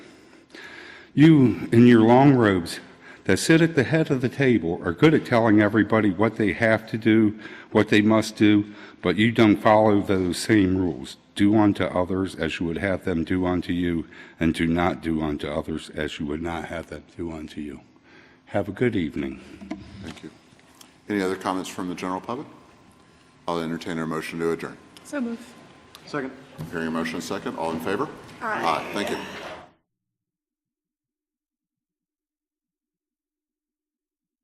You, in your long robes, that sit at the head of the table, are good at telling everybody what they have to do, what they must do, but you don't follow those same rules. Do unto others as you would have them do unto you, and do not do unto others as you would not have them do unto you. Have a good evening. Thank you. Any other comments from the general public? I'll entertain a motion to adjourn. So move. Hearing a motion and second, all in favor? Aye. Thank you.